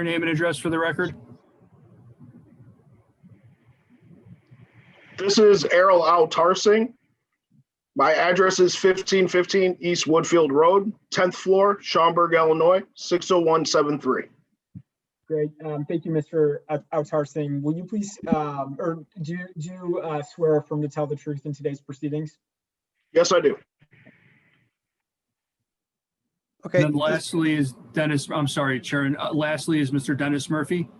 Your name and address for the record? This is Errol Al Tarsing. My address is fifteen fifteen East Woodfield Road, tenth floor, Schaumburg, Illinois, six oh one seven three. Great. Um, Thank you, Mr. Av- Avtar Singh. Will you please, um, or do you- do you uh, swear or affirm to tell the truth in today's proceedings? Yes, I do. And Okay, then lastly is Dennis, I'm sorry, Sharon, Uh, lastly is Mr. Dennis Murphy.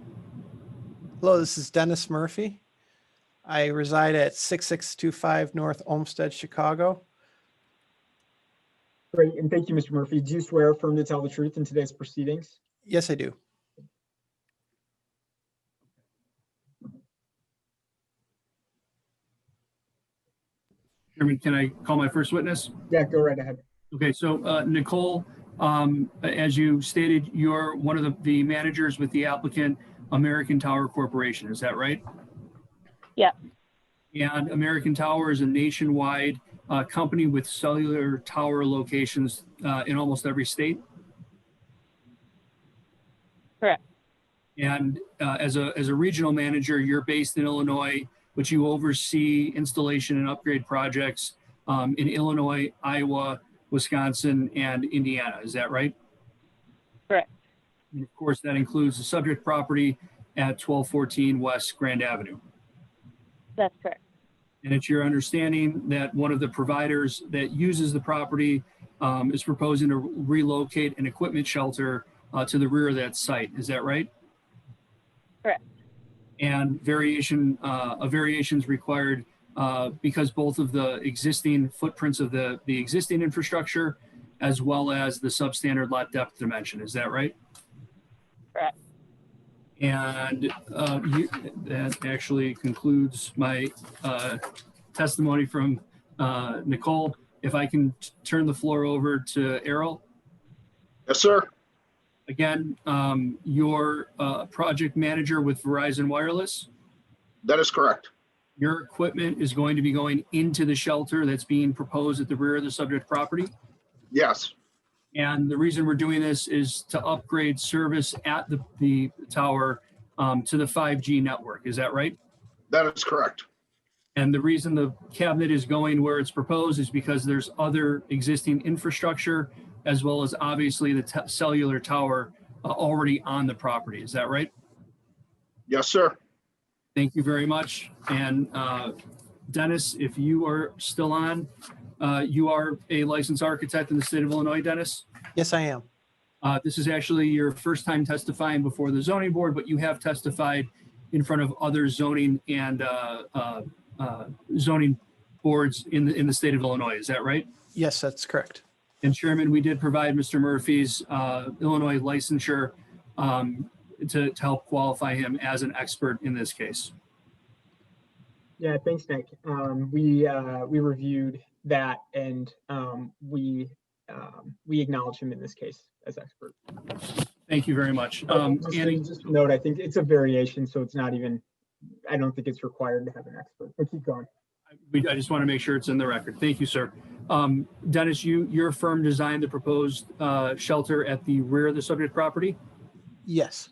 hello, this is Dennis Murphy. I reside at 6625 North Olmsted, Chicago. Great, and thank you, Mr. Murphy. Do you swear or affirm to tell the truth in today's proceedings? Yes, I do. Chairman, can I call my first witness? Yeah, go right ahead. Okay, so uh, Nicole, um, as you stated, you're one of the- the managers with the applicant, American Tower Corporation, is that right? Yep. And American Tower is a nationwide uh, company with cellular tower locations uh, in almost every state? Correct. And uh, as a, as a regional manager, you're based in Illinois, but you oversee installation and upgrade projects um, in Illinois, Iowa, Wisconsin, and Indiana. Is that right? Correct. And of course, that includes the subject property at 1214 West Grand Avenue. That's correct. And it's your understanding that one of the providers that uses the property um, is proposing to relocate an equipment shelter uh, to the rear of that site. Is that right? Correct. And variation, uh, a variation is required uh, because both of the existing footprints of the, the existing infrastructure as well as the substandard lot depth dimension. Is that right? Correct. And uh, you, that actually concludes my uh, testimony from uh, Nicole. If I can t- turn the floor over to Errol. Yes, sir. Again, um, your uh, project manager with Verizon Wireless, That is correct. your equipment is going to be going into the shelter that's being proposed at the rear of the subject property. Yes, And the reason we're doing this is to upgrade service at the, the tower um, to the 5G network. Is that right? that is correct. And the reason the cabinet is going where it's proposed is because there's other existing infrastructure as well as obviously the t- cellular tower uh, already on the property. Is that right? Yes, sir. Thank you very much. And uh, Dennis, if you are still on, uh, you are a licensed architect in the state of Illinois, Dennis. Yes, I am. Uh, This is actually your first time testifying before the zoning board, but you have testified in front of other zoning and uh, uh, uh, zoning boards in the, in the state of Illinois. Is that right? Yes, that's correct. And Chairman, we did provide Mr. Murphy's uh, Illinois licensure um, to to help qualify him as an expert in this case. Yeah, thanks, Nick. Um, we, uh, we reviewed that and, um, we, um, we acknowledge him in this case as expert. Thank you very much. Um, Just Annie- just to note, I think it's a variation, so it's not even, I don't think it's required to have an expert, but keep going. We, I just want to make sure it's in the record. Thank you, sir. Um, Dennis, you, your firm designed the proposed, uh, shelter at the rear of the subject property? Yes,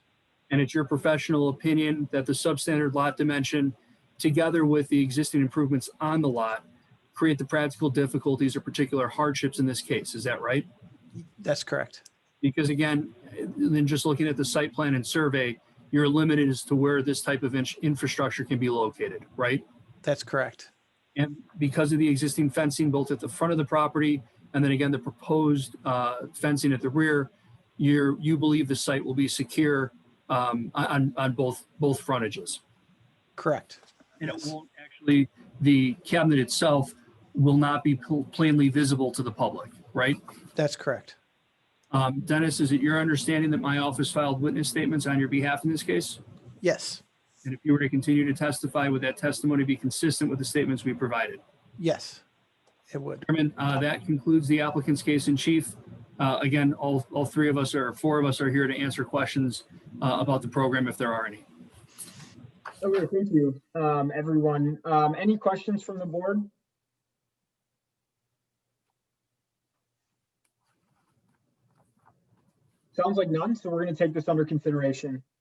And it's your professional opinion that the substandard lot dimension, together with the existing improvements on the lot, create the practical difficulties or particular hardships in this case. Is that right? that's correct. Because again, then just looking at the site plan and survey, you're limited as to where this type of in- infrastructure can be located, right? That's correct. And because of the existing fencing both at the front of the property and then again, the proposed uh, fencing at the rear, you're, you believe the site will be secure um, on, on both, both frontages. Correct. And it won't actually, the cabinet itself will not be pl- plainly visible to the public, right? That's correct. Um, Dennis, is it your understanding that my office filed witness statements on your behalf in this case? Yes, And if you were to continue to testify, would that testimony be consistent with the statements we provided? yes, it would. Chairman, uh, that concludes the applicant's case in chief. Uh, Again, all, all three of us or four of us are here to answer questions uh, about the program if there are any. Okay, thank you, um, everyone. Um, any questions from the board? Sounds like none, so we're going to take this under consideration.